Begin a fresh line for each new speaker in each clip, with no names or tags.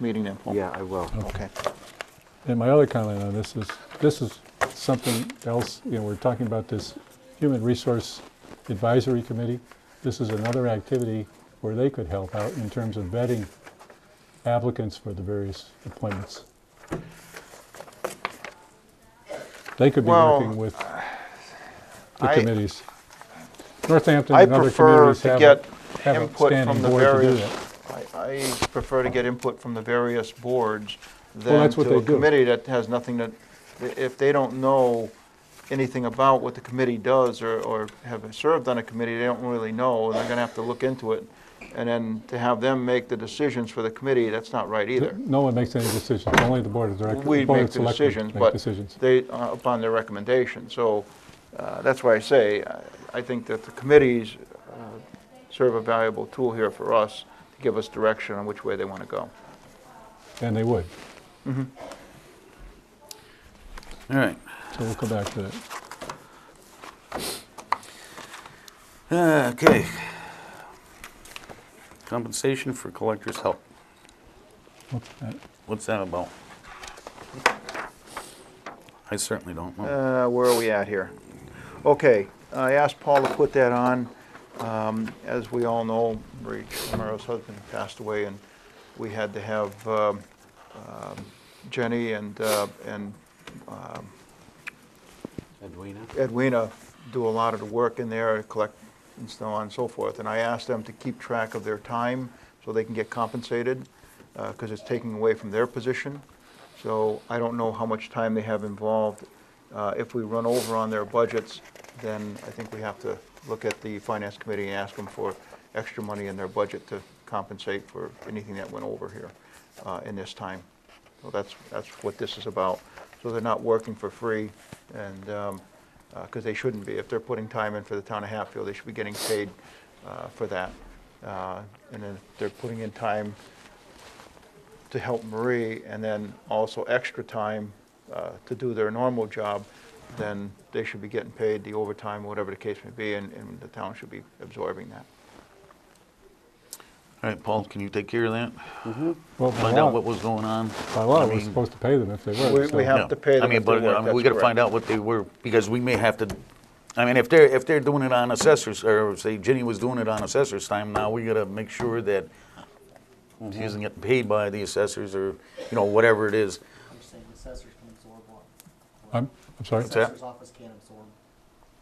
meeting info?
Yeah, I will.
Okay.
And my other comment on this is, this is something else, you know, we're talking about this Human Resource Advisory Committee. This is another activity where they could help out in terms of vetting applicants for the various appointments. They could be
Well,
working with the
I-
committees. Northampton
I
and other
prefer
communities
to
have
get
a, have a
input from
standing
the
board to do
various,
that.
I I prefer to get input from the various boards than
that's what
to a
they do.
committee that has nothing that, if they don't know anything about what the committee does or, or have served on a committee, they don't really know, and they're gonna have to look into it. And then to have them make the decisions for the committee, that's not right either.
No one makes any decisions, only the board of directors.
We
board of
make the
selectmen
decisions,
make
but
decisions.
they, uh, upon their recommendation. So uh, that's why I say, I- I think that the committees uh, serve a valuable tool here for us to give us direction on which way they want to go.
And they would.
All right.
So we'll come back to that.
Uh, Okay. Compensation for collector's help.
What's that?
What's that about? I certainly don't know.
Uh, Where are we at here? Okay, I asked Paul to put that on. Um, As we all know, Marie Romero's husband passed away, and we had to have um, um, Jenny and, uh, and um,
Edwina?
Edwina do a lot of the work in there, collect and so on and so forth. And I asked them to keep track of their time so they can get compensated, because it's taking away from their position. So I don't know how much time they have involved. Uh, If we run over on their budgets, then I think we have to look at the finance committee and ask them for extra money in their budget to compensate for anything that went over here uh, in this time. So that's, that's what this is about. So they're not working for free, and, um, because they shouldn't be. If they're putting time in for the town of Hatfield, they should be getting paid uh, for that. Uh, And then if they're putting in time to help Marie, and then also extra time uh, to do their normal job, then they should be getting paid the overtime, whatever the case may be, and- and the town should be absorbing that.
All right, Paul, can you take care of that?
Well, by
Find out what
law,
was going on?
by law,
I
we're
mean-
supposed to pay them if they
We-
were.
we
so-
have-
Yeah.
to pay
I
them
mean,
if they
but,
work,
um,
that's
We gotta find
correct.
out what they were, because we may have to, I mean, if they're, if they're doing it on assessors, or say Jenny was doing it on assessors time, now we gotta make sure that she isn't getting paid by the assessors, or, you know, whatever it is.
You're saying the assessors can absorb what? What
I'm, I'm sorry?
What's
The
that?
assessor's office can't absorb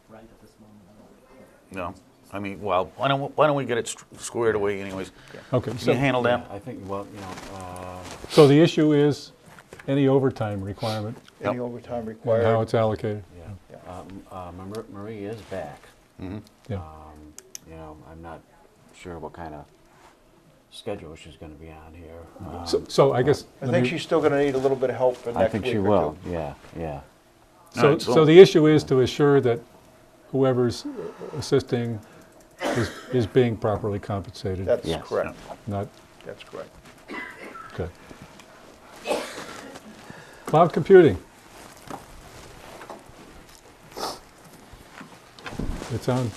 right at this moment. I don't know.
No, I mean, well, why don't, why don't we get it st- squared away anyways?
Okay,
Can you
so,
handle
Yeah,
that?
I think, well, you know, uh,
so the issue is any overtime requirement
Any
Yep.
overtime
and how
required.
it's allocated.
yeah. Uh, M- uh, Mar- Marie is back.
Yeah,
Um, You know, I'm not sure what kind of schedule she's going to be on here.
Ah.
Um,
so, so I guess.
I
let
think
me-
she's still going to need a little bit of help for
Uh, I
next week
think
or
she
two.
will, yeah, yeah.
All
So,
right, so-
so the issue is to assure that whoever's assisting is, is being properly compensated,
That's
Yes.
correct,
not,
that's correct.
good. Cloud computing. It's on,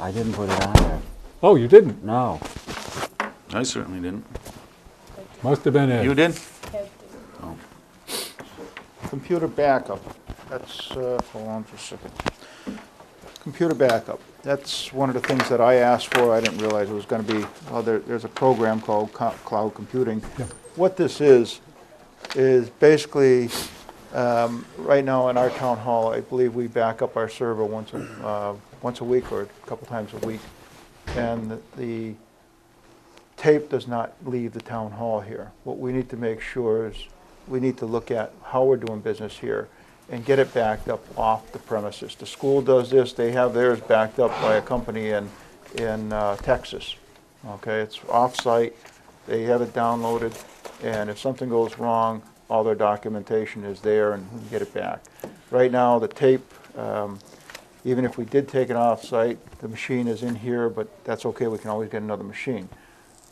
I didn't put it on there,
oh, you didn't,
no.
I certainly didn't.
must have been Ed.
You did?
Computer backup, that's, uh, hold on for a second. Computer backup, that's one of the things that I asked for, I didn't realize it was gonna be, well, there, there's a program called co- cloud computing. What this is, is basically, um, right now in our town hall, I believe we back up our server once, a- uh, once a week or a couple times a week. And the tape does not leave the town hall here. What we need to make sure is, we need to look at how we're doing business here and get it backed up off the premises. The school does this, they have theirs backed up by a company in, in uh, Texas. Okay, it's off-site, they have it downloaded, and if something goes wrong, all their documentation is there and we can get it back. Right now, the tape, um, even if we did take it off-site, the machine is in here, but that's okay, we can always get another machine.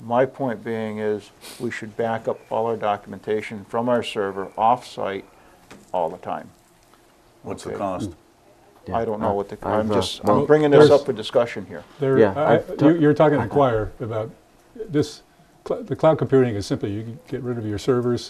My point being is, we should back up all our documentation from our server off-site all the time.
What's the
Okay.
cost?
I don't know what the,
I've,
I'm
uh,
just,
well,
I'm bringing this
there's-
up for discussion here.
There,
Yeah,
I-
I've
you-
ta-
you're talking to choir about this, cl- the cloud computing is simply, you can get rid of your servers,